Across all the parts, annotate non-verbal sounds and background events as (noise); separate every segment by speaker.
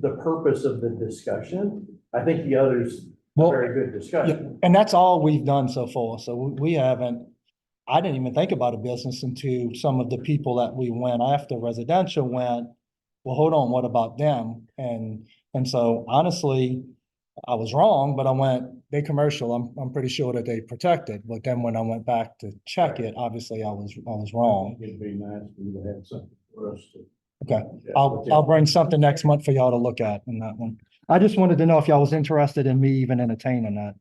Speaker 1: the purpose of the discussion. I think the others, a
Speaker 2: Well,
Speaker 1: very good discussion.
Speaker 2: and that's all we've done so far. So we, we haven't, I didn't even think about a business until some of the people that we went after residential went, well, hold on, what about them? And, and so honestly, I was wrong, but I went, they commercial, I'm, I'm pretty sure that they protected. But then when I went back to check it, obviously I was, I was wrong.
Speaker 1: It'd be nice for you to have something for us to.
Speaker 2: Okay, I'll, I'll bring something next month for y'all to look at in that one. I just wanted to know if y'all was interested in me even entertaining that.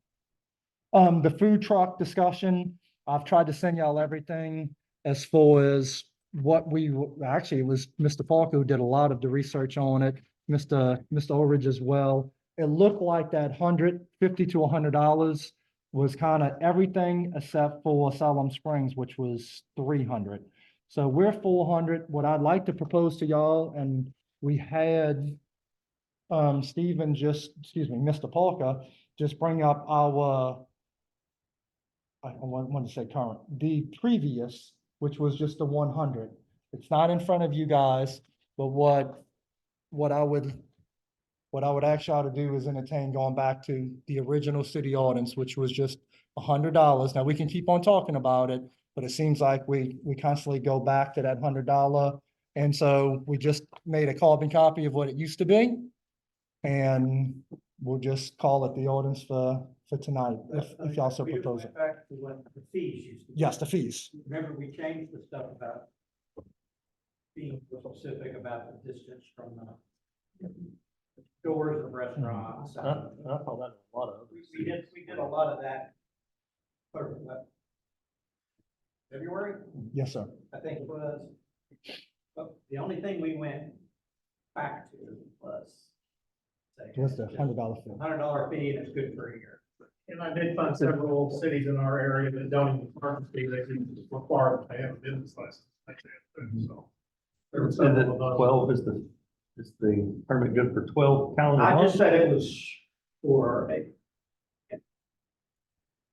Speaker 2: Um, the food truck discussion, I've tried to send y'all everything as far as what we, w- actually, it was Mr. Parker who did a lot of the research on it, Mr. Mr. Orridge as well. It looked like that hundred fifty to hundred dollars was kind of everything except for Salem Springs, which was three hundred. So we're four hundred. What I'd like to propose to y'all, and we had um, Stephen just, excuse me, Mr. Parker, just bring up our I, I want, want to say current, the previous, which was just the one hundred. It's not in front of you guys, but what, what I would, what I would ask y'all to do is entertain going back to the original city ordinance, which was just hundred dollars. Now, we can keep on talking about it, but it seems like we, we constantly go back to that hundred dollar. And so we just made a carbon copy of what it used to be. And we'll just call it the ordinance for, for tonight, if, if y'all so
Speaker 3: uh, We went
Speaker 2: propose it.
Speaker 3: Back to what the fees used to be.
Speaker 2: Yes, the fees.
Speaker 3: Remember, we changed the stuff about being specific about the distance from the doors of restaurants. and- We we did, we did a lot of that. for, uh, February,
Speaker 2: Yes, sir.
Speaker 3: I think it was. But the only thing we went back to was. say,
Speaker 2: What's the hundred dollar fee?
Speaker 3: Hundred dollar fee and it's good for a year.
Speaker 4: And I did find several cities in our area that don't even currently, they can require that they have a business license. like that, too, So. There were
Speaker 5: Mhm. And that
Speaker 4: several of those.
Speaker 5: twelve is the, is the permit good for twelve calendar
Speaker 3: I just
Speaker 5: months?
Speaker 3: said it was for a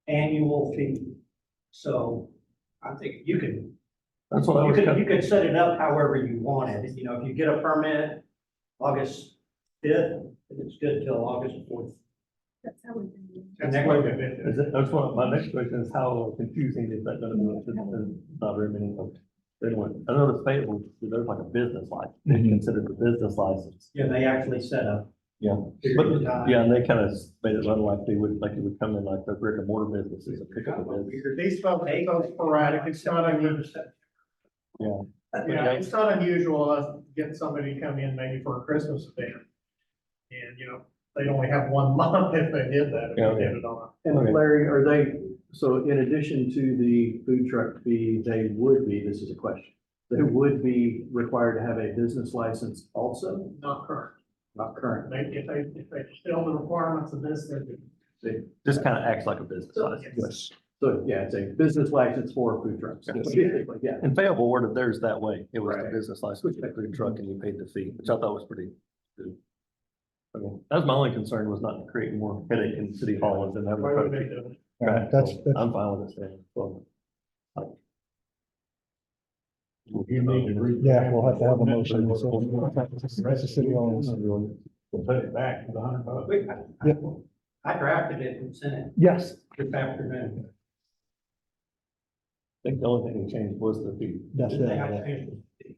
Speaker 3: annual fee, so I think you can,
Speaker 5: That's what I
Speaker 3: you
Speaker 5: was,
Speaker 3: can,
Speaker 5: kind
Speaker 3: you
Speaker 5: of-
Speaker 3: can set it up however you want it, you know, if you get a permit August fifth, it's good till August fourth.
Speaker 6: That's how we do it.
Speaker 4: That's what they did.
Speaker 5: is it, that's what, my next question is how confusing is that gonna be? It's- it's Not very many folks. They went, I noticed Fayetteville, there's like a business license, they
Speaker 2: Mhm.
Speaker 5: considered a business license.
Speaker 3: Yeah, they actually set up.
Speaker 5: Yeah.
Speaker 3: Period
Speaker 5: But,
Speaker 3: of time.
Speaker 5: yeah, and they kind of made it run like they would, like it would come in like the brick and mortar businesses and pick up a business.
Speaker 4: These folks, they go sporadic, it's not unusual.
Speaker 5: Yeah.
Speaker 4: Yeah, it's not unusual us to get somebody to come in maybe for a Christmas event. And, you know, they'd only have one (laughs) month if they did that, if
Speaker 5: Yeah,
Speaker 4: they
Speaker 5: okay.
Speaker 4: did it on
Speaker 5: Okay.
Speaker 1: And Larry, are they, so in addition to the food truck fee, they would be, this is a question, they
Speaker 2: Hmm.
Speaker 1: would be required to have a business license also,
Speaker 4: a, not current.
Speaker 1: not current?
Speaker 4: They, if they, if they fill the requirements of this, they'd be
Speaker 5: Just kind of acts like a business license.
Speaker 2: Yes.
Speaker 1: So, yeah, it's a business license for food trucks.
Speaker 5: Yes.
Speaker 1: basically, Yeah,
Speaker 5: And Fayetteville ordered theirs that way. It was the
Speaker 1: Right.
Speaker 5: business license, which paid the truck and you paid the fee, which I thought was pretty good. Okay, That was my only concern was not to create more headache in city hall and then have.
Speaker 4: Why would they
Speaker 5: a-
Speaker 4: do it?
Speaker 2: Yeah,
Speaker 5: Right,
Speaker 2: That's,
Speaker 5: so
Speaker 2: that's,
Speaker 5: I'm fine with it staying. Well,
Speaker 7: You need to read.
Speaker 2: yeah, we'll have to have a motion. so- That's the city ordinance.
Speaker 7: We'll put it back to the hundred bucks.
Speaker 3: We- I- I-
Speaker 2: Yep.
Speaker 3: I drafted it and sent it
Speaker 2: Yes,
Speaker 3: this afternoon.
Speaker 5: I think the only thing that changed was the fee.
Speaker 2: that's
Speaker 3: They have to
Speaker 2: it.
Speaker 3: finish it.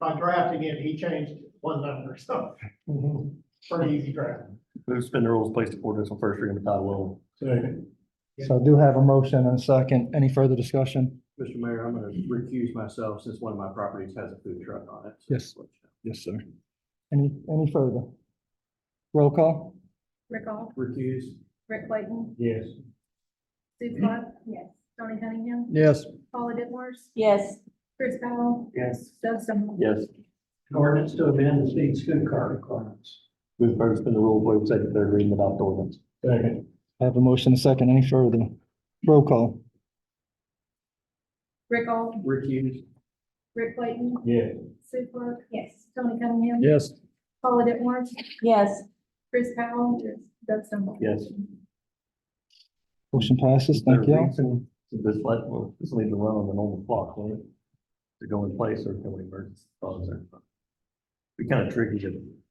Speaker 4: By drafting it, he changed one number, so
Speaker 2: Mm-hmm.
Speaker 4: pretty easy draft.
Speaker 5: Move to suspend the rules, place the ordinance on first reading by title only.
Speaker 7: Second.
Speaker 2: So I do have a motion and a second. Any further discussion?
Speaker 1: Mr. Mayor, I'm gonna recuse myself since one of my properties has a food truck on it.
Speaker 2: Yes. Yes, sir. Any, any further? Roll call?
Speaker 6: Rick Hall,
Speaker 1: Recuse.
Speaker 6: Rick Clayton,
Speaker 7: Yes.
Speaker 6: Sue Clark. Yes. Tony Cunningham,
Speaker 2: Yes.
Speaker 6: Paula Dittmars,
Speaker 8: Yes,
Speaker 6: Chris Powell,
Speaker 3: Yes,
Speaker 6: Doug Stumble.
Speaker 5: Yes,
Speaker 3: An ordinance to amend the state's food card requirements.
Speaker 5: move first in the rules, waive second, third reading without the ordinance.
Speaker 7: Second.
Speaker 2: I have a motion and a second. Any further? Roll call?
Speaker 6: Rick Hall,
Speaker 1: Recuse.
Speaker 6: Rick Clayton,
Speaker 7: Yes.
Speaker 6: Sue Clark. Yes. Tony Cunningham.
Speaker 2: Yes.
Speaker 6: Paula Dittmars,
Speaker 8: yes.
Speaker 6: Chris Powell. Yes. Doug Stumble.
Speaker 5: Yes.
Speaker 2: Motion passes. Thank
Speaker 5: There a
Speaker 2: you.
Speaker 5: reason This let, well, this will need to run on the normal clock, won't it? To go in place or can we merge? those? We kind of tricky to